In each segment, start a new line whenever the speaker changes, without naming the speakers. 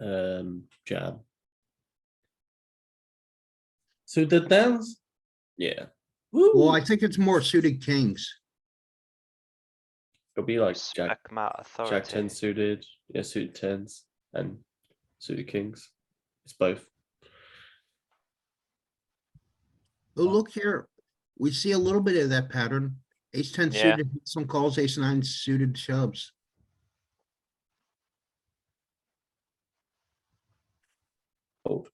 um, jam. Suited tens? Yeah.
Well,
Woo,
I think it's more suited kings.
it'll be like jack,
Respect my authority.
jack ten suited, yeah, suited tens and suited kings. It's both.
Oh, look here. We see a little bit of that pattern. Ace ten
Yeah.
suited, hits some calls, ace nine suited shoves.
Fold.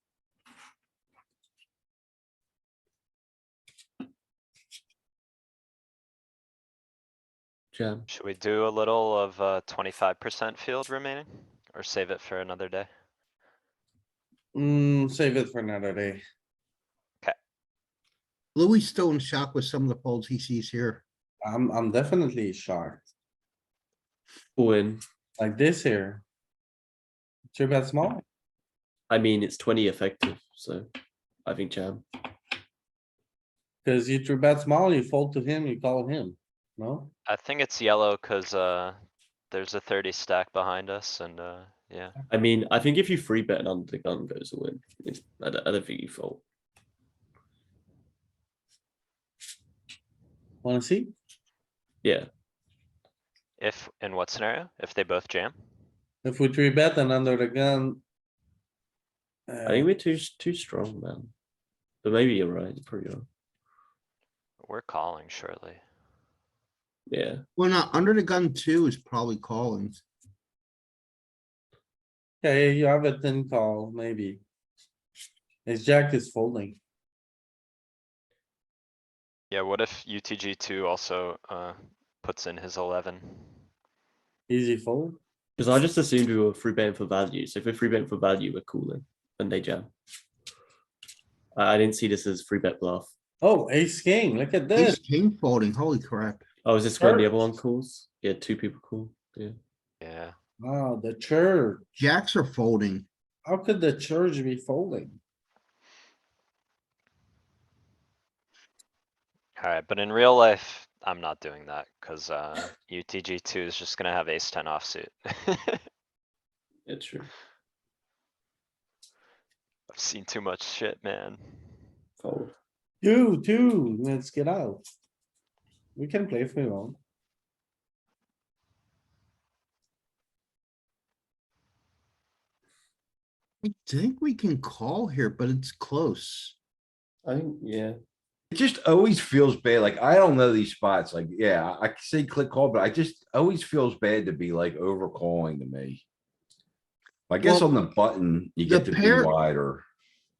Jam.
Should we do a little of uh twenty-five percent field remaining or save it for another day?
Mm, save it for another day.
Louis still in shock with some of the folds he sees here.
I'm, I'm definitely shocked.
All in.
Like this here. Three bet small.
I mean, it's twenty effective, so I think jam.
Cause you three bet small, you fold to him, you call him. No?
I think it's yellow cuz uh there's a thirty stack behind us and uh yeah,
I mean, I think if you free bet and under the gun goes all in, it's, I don't, I don't think you fold.
Wanna see?
Yeah,
if in what scenario? If they both jam?
If we three bet and under the gun.
I think
Uh,
we're too, s- too strong, man. But maybe you're right, you're probably right.
We're calling shortly.
Yeah,
Well, not under the gun two is probably calling.
Uh, okay, you have a thin call, maybe. His jack is folding.
Yeah, what if UTG two also uh puts in his eleven?
Easy fold.
because I just assumed we were free betting for value, so if we're free betting for value, we're cooling and they jam. I, I didn't see this as free bet bluff.
Oh, ace king, look at
Ace
this.
king folding, holy crap.
Oh, is this when the other one calls? Yeah, two people call, yeah.
Yeah,
Wow, the church.
Jacks are folding.
How could the church be folding?
alright, but in real life, I'm not doing that cuz uh UTG two is just gonna have ace ten offsuit. I've
Yeah, true.
seen too much shit, man.
Fold.
You too, let's get out. We can play if we want.
I think we can call here, but it's close.
I think, yeah,
It just always feels bad. Like I don't know these spots. Like, yeah, I could say click call, but I just always feels bad to be like over calling to me. I guess
Well,
on the button, you
the
get to be
pair-
wider.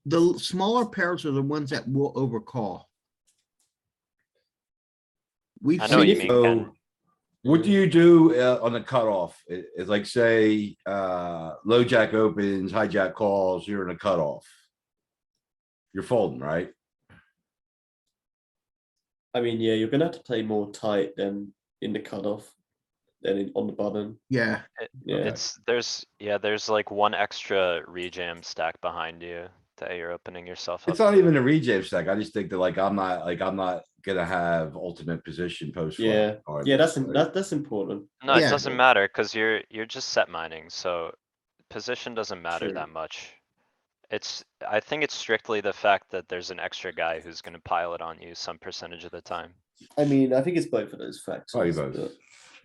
The l- smaller pairs are the ones that will overcall. We've
I know what
seen
you mean,
it.
So
Ken.
what do you do uh, on the cutoff? It- It's like say, uh, low jack opens, hijack calls, you're in a cutoff. You're folding, right?
I mean, yeah, you're gonna have to play more tight than in the cutoff than in, on the button,
Yeah,
yeah.
It's, there's, yeah, there's like one extra rejam stack behind you that you're opening yourself up.
It's not
to.
even a rejam stack. I just think that like, I'm not, like, I'm not gonna have ultimate position post. flop
Yeah.
on
Yeah, that's,
Right.
im- that, that's important.
No, it
Yeah.
doesn't matter, cuz you're, you're just set mining, so position doesn't matter
True.
that much. It's, I think it's strictly the fact that there's an extra guy who's gonna pile it on you some percentage of the time.
I mean, I think it's both of those factors.
Probably both.
but,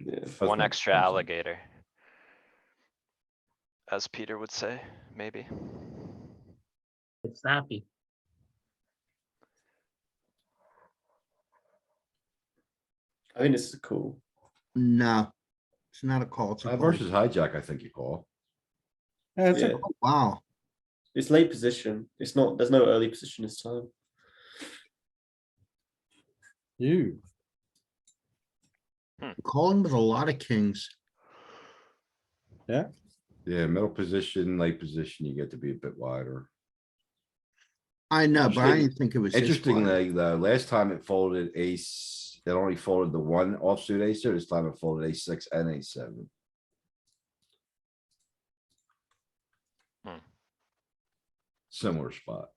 Yeah,
That's
One
my
extra
assumption.
alligator. As Peter would say, maybe.
It's snappy.
I think this is cool.
no. It's not a call. It's a
Uh,
fold.
Versus hijack, I think you call.
Yeah, it's a
Yeah.
Oh, Wow.
It's late position. It's not, there's no early position this time.
You,
Calling with a lot of kings.
Yeah, middle position, late position, you get to be a bit wider.
I know, but I
Interesting- uh,
didn't think it was. this wide.
Interestingly, the last time it folded ace, it only folded the one offsuit ace, so this time it folded ace six and ace seven.
Hmm.
Similar spot.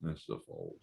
That's the fold.